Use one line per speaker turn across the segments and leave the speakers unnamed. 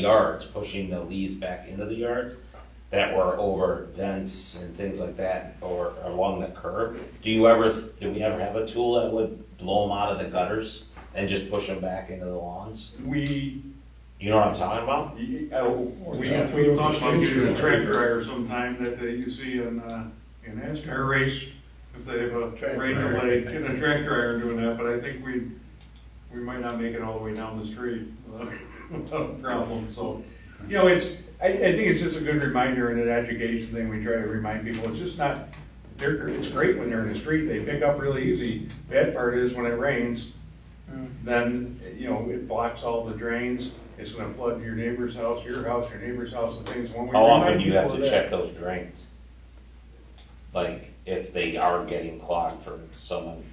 yards, pushing the leaves back into the yards that were over vents and things like that, or along the curb. Do you ever, did we ever have a tool that would blow them out of the gutters and just push them back into the lawns?
We, uh,
You know what I'm talking about?
we, we
Yeah.
thought about using a track dryer sometime that they, you see in, uh, in NASCAR race, if they have a
Track
rain
dryer.
delay, get a track dryer doing that, but I think we, we might not make it all the way down the street without without a problem, so. You know, it's, I, I think it's just a good reminder and an education thing, we try to remind people, it's just not, they're, it's great when they're in the street, they pick up really easy. Bad part is when it rains, then, you know, it blocks all the drains, it's gonna flood your neighbor's house, your house, your neighbor's house, and things. When we
How often
remind
do you have
people
to
of that-
check those drains? Like, if they are getting clogged from someone,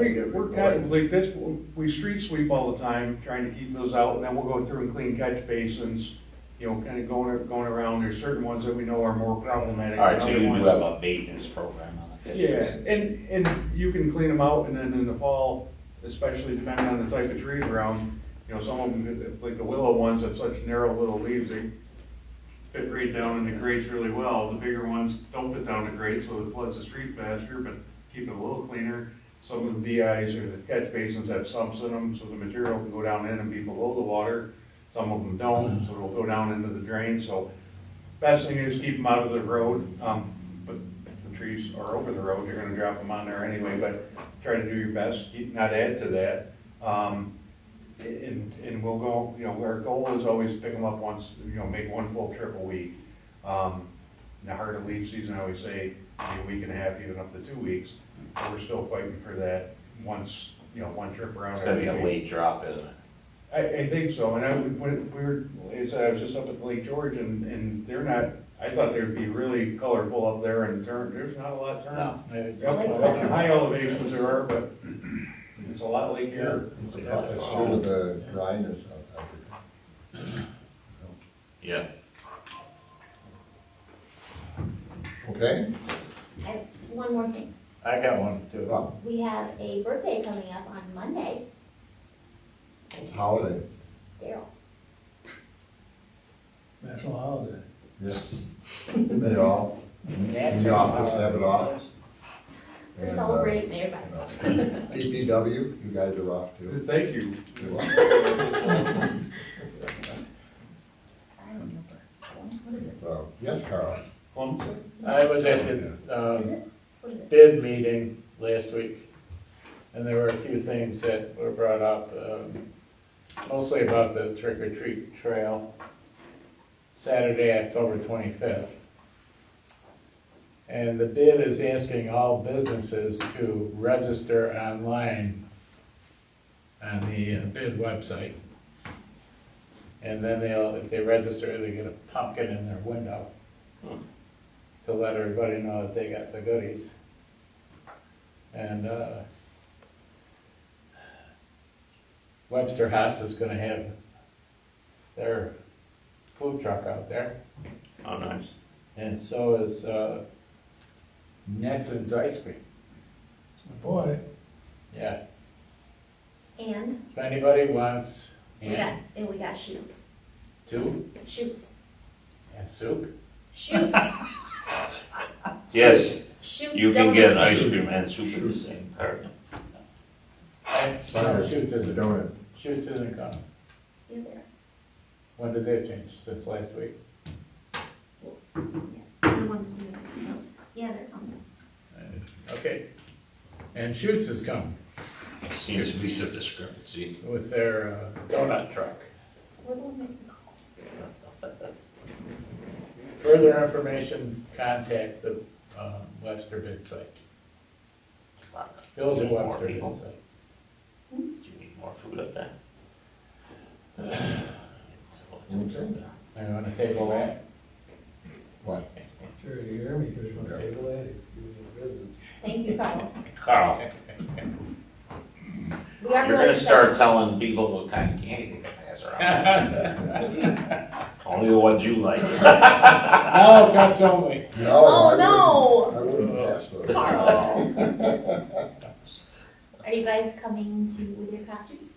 We, we're kind of like this, we street sweep all the time, trying to keep those out, and then we'll go through and clean catch basins, you know, kind of going, going around, there's certain ones that we know are more problematic.
All right, so
than other
you do
ones.
have a maintenance program on it.
Yeah, and, and you can clean them out, and then in the fall, especially depending on the type of trees around, you know, some of them, like the willow ones, have such narrow little leaves, they fit right down in the grates really well. The bigger ones don't fit down the grate, so it floods the street faster, but keep it a little cleaner. Some of the DIs or the catch basins have sumps in them, so the material can go down in and be below the water. Some of them don't, so it'll go down into the drain, so best thing is keep them out of the road. Um, but if the trees are over the road, you're gonna drop them on there anyway, but try to do your best, keep, not add to that. Um, and, and we'll go, you know, our goal is always pick them up once, you know, make one full trip a week. Um, in the heart of leaf season, I always say, maybe a week and a half, even up to two weeks, but we're still fighting for that once, you know, one trip around.
It's gonna be a
every week.
late drop, isn't it?
I, I think so, and I, when we were, like I said, I was just up at Lake George and, and they're not, I thought they'd be really colorful up there and turn, there's not a lot of turn.
No.
Up- up in High elevations there are, but it's a lot like here.
It's due to the dryness of it.
Yeah.
Okay?
I- One more thing,
I got one too.
Well,
we have a birthday coming up on Monday,
Holiday,
Daryl.
National holiday.
yes. They all, the office have it off.
To
And, uh,
celebrate Mayor
you
Byers.
know. uh, DPW, you guys are off too.
Thank you.
You're welcome.
I don't remember. What is it?
So, Yes, Carl.
Clemson?
I was at the,
Is
um,
it? What is it?
bid meeting last week, and there were a few things that were brought up, um, mostly about the trick or treat trail, Saturday, October twenty-fifth. And the bid is asking all businesses to register online on the uh, bid website. And then they'll, if they register, they get a pumpkin in their window to let everybody know that they got the goodies. And, uh, Webster Hops is gonna have their food truck out there,
Oh, nice.
and so is, uh, Nelson's Ice Cream,
It's my boy.
yeah.
And
If anybody wants,
we
and
got, and we got shoots,
two,
shoots,
and soup,
shoots,
Yes,
shoots.
you can get an
donuts.
ice cream and soup in the same cart.
and
Sorry,
Shoots isn't,
Donut.
Shoots isn't coming.
You're there.
When did they change, since last week?
The one you know. Yeah, they're on.
Okay. And Shoots is coming
Seems to be some discrepancy.
with their uh, donut truck.
We're going to make the calls.
Further information, contact the um, Webster bid site,
Do
Village
you
of
need more
Webster bid
people?
site.
Do you need more food up there?
Okay.
I want to table that.
What?
Sure, you hear me, because you're gonna take the ladies, give me your business.
Thank you, Carl.
Carl,
We are
you're
really
gonna start
excited.
telling people what kind of candy they can pass around. Only the ones you like.
Oh, God, don't we?
Oh,
I
no,
wouldn't- I wouldn't pass those.
Oh. Carl. Are you guys coming to, with your costumes?